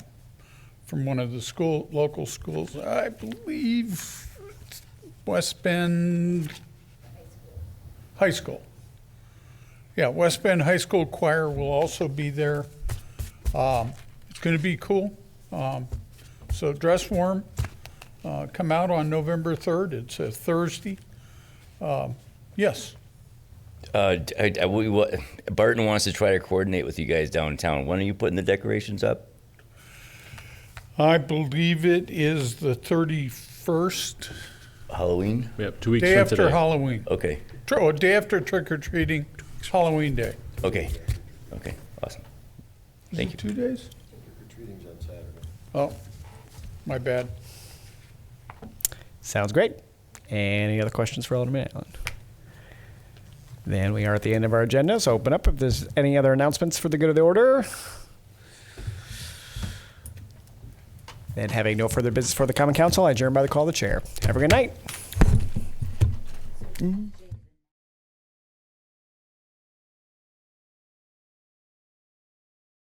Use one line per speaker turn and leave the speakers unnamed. from one of the school, local schools, I believe it's West Bend High School. Yeah, West Bend High School Choir will also be there. Um, It's going to be cool. Um, So dress warm. Uh, Come out on November 3rd. It's a Thursday. Um, Yes.
Uh, d- I- I- we, wa- Barton wants to try to coordinate with you guys downtown. When are you putting the decorations up?
I believe it is the 31st,
Halloween?
We have two weeks
day
from
after
today.
Halloween.
Okay,
Tr- Oh, day after trick or treating, Halloween day.
okay, okay, awesome.
Is
Thank
it Two days? Oh, my bad.
Sounds great. Any other questions for Alderman Allen? Then we are at the end of our agenda, so open up if there's any other announcements for the good of the order. Then having no further business for the common council, I adjourn by the call of the chair. Have a good night.